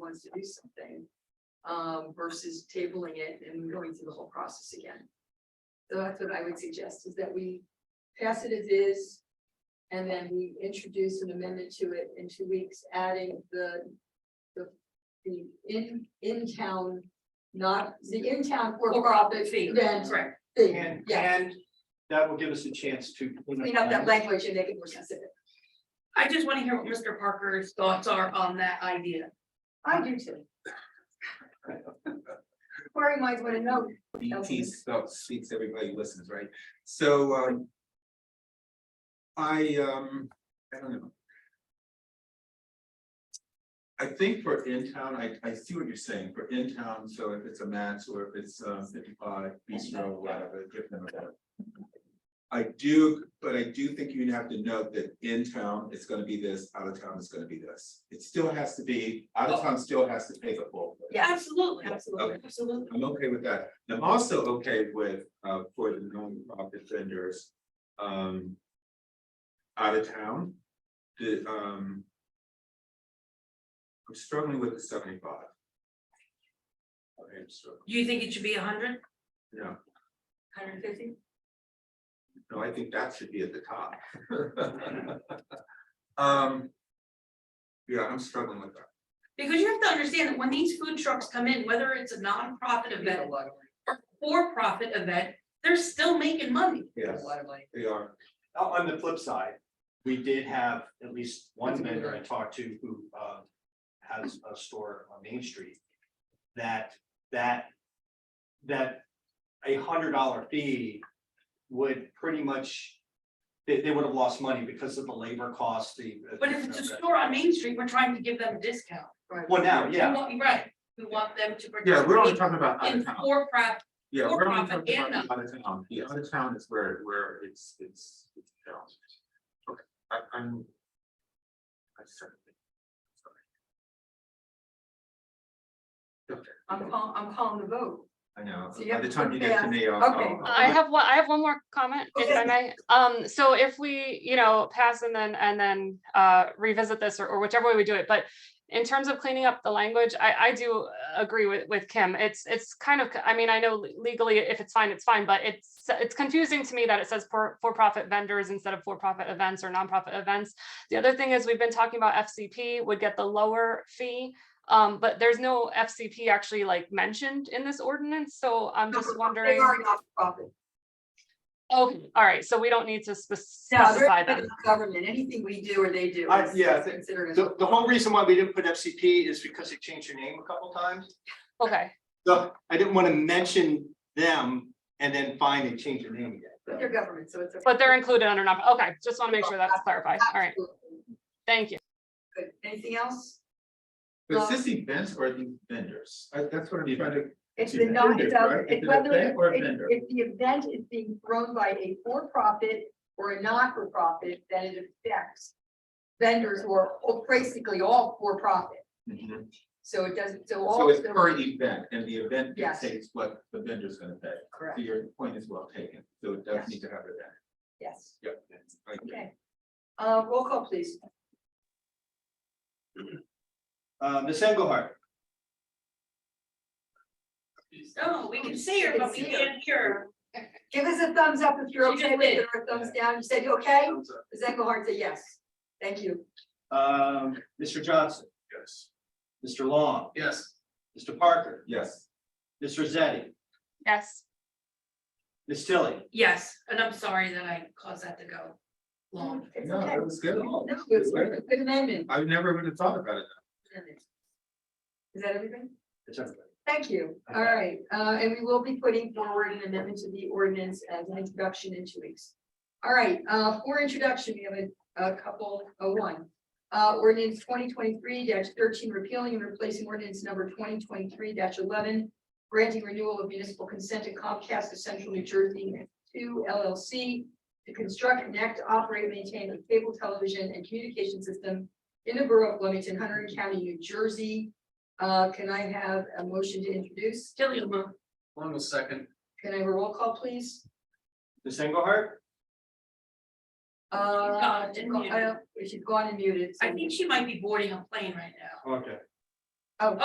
wants to do something. Um, versus tabling it and going through the whole process again. So that's what I would suggest, is that we pass it as is. And then we introduce an amendment to it in two weeks, adding the, the, the in, in-town, not the in-town for-profit fee. event Correct. thing, And, yeah. and that will give us a chance to. Clean up that language and make it more specific. I just want to hear what Mr. Parker's thoughts are on that idea. I do too. Query minds wanna know, BT spelt E speaks, everybody listens, right? So, um. I, um, I don't know. I think for in town, I, I see what you're saying, for in town, so if it's a match or if it's, um, fifty-five, bistro, whatever, give them a better. I do, but I do think you have to note that in town, it's gonna be this, out of town, it's gonna be this. It still has to be, out of town still has to pay the full. Yeah. Absolutely, absolutely, absolutely. I'm okay with that. I'm also okay with, uh, for the nonprofit vendors, um. Out of town, the, um. I'm struggling with the seventy-five. Okay, I'm struggling, Do you think it should be a hundred? no, Hundred fifty? no, I think that should be at the top. Um. Yeah, I'm struggling with that. Because you have to understand that when these food trucks come in, whether it's a nonprofit event, for-profit event, they're still making money. Yes, they are. On the flip side, we did have at least one vendor I talked to who, uh, has a store on Main Street. That, that, that a hundred dollar fee would pretty much, they, they would have lost money because of the labor cost, the. But if it's a store on Main Street, we're trying to give them a discount. Well, now, We yeah, want- Right, we want them to Yeah, we're only participate talking about out in of town. for-profit, Yeah, we're only for-profit talking and about the out of town, the out of town is where, where it's, it's, it's challenging. Okay, I, I'm. I certainly. I'm calling, I'm calling the vote. I know, So you by have the to time you get to fast. me, I'll. Okay. I'll- I have one, I have one more comment, if I may. Um, so if we, you know, pass and then, and then, uh, revisit this or, or whichever way we do it, but in terms of cleaning up the language, I, I do agree with, with Kim. It's, it's kind of, I mean, I know legally, if it's fine, it's fine, but it's, it's confusing to me that it says for, for-profit vendors instead of for-profit events or nonprofit events. The other thing is, we've been talking about FCP would get the lower fee, um, but there's no FCP actually like mentioned in this ordinance, so I'm just They wondering. are not for profit. Okay, all right, so we don't need to spec- No, specify they're that. not government, anything we do or they do. I- is- yeah, is Considered as. the, the whole reason why we didn't put FCP is because they changed their name a couple times. Okay, So I didn't want to mention them and then find and change their name But again. they're government, so it's. okay. but they're included under not, okay, just want to make sure that's clarified. All right, Absolutely. thank you. Good. Anything else? But is this events or the vendors? I, that's what I'm trying to, It's It's the non, it's, vendors, a- right? it's It's an whether, event or a if, vendor. if the event is being run by a for-profit or a not-for-profit, then it affects vendors who are all- basically all for-profit. Mhm. So it doesn't, so all. so it's of them- per event and the event Yes. dictates what the vendor's gonna pay. So Correct, your point is well taken, so it Yes. does need to have it then. yes, Yep. I agree. okay. Uh, roll call, please. Uh, Ms. Engelhardt? no, we can see her, but we can't hear. Give us a thumbs up if you're She just okay with it, did. or a thumbs down, you said you okay? Ms. Engelhardt said yes, thank you. Um, Mr. Johnson? Yes. Mr. Long? Yes. Mr. Parker? Yes, Ms. Rosetti? Yes, Ms. Tilly? Yes, and I'm sorry that I caused that to go long. It's no, okay. that was good. No, it's a Good amendment. I never would have thought about it. Is that everything? It's everybody. Thank you. All right, uh, and we will be putting forward an amendment to the ordinance as an introduction in two weeks. All right, uh, for introduction, we have a, a couple, oh, one. Uh, ordinance twenty twenty-three thirteen repealing and replacing ordinance number twenty twenty-three eleven. Granting renewal of municipal consent to Comcast of Central New Jersey to LLC. To construct, connect, operate, maintain a cable television and communication system in the borough of Flemington, Hunter County, New Jersey. Uh, can I have a motion to introduce? Still, you move. One second. Can I have a roll call, please? Ms. Engelhardt? Uh, gone and go- I don't- Uh, she's gone and muted. so- I think she might be boarding a plane right now. Okay. Oh.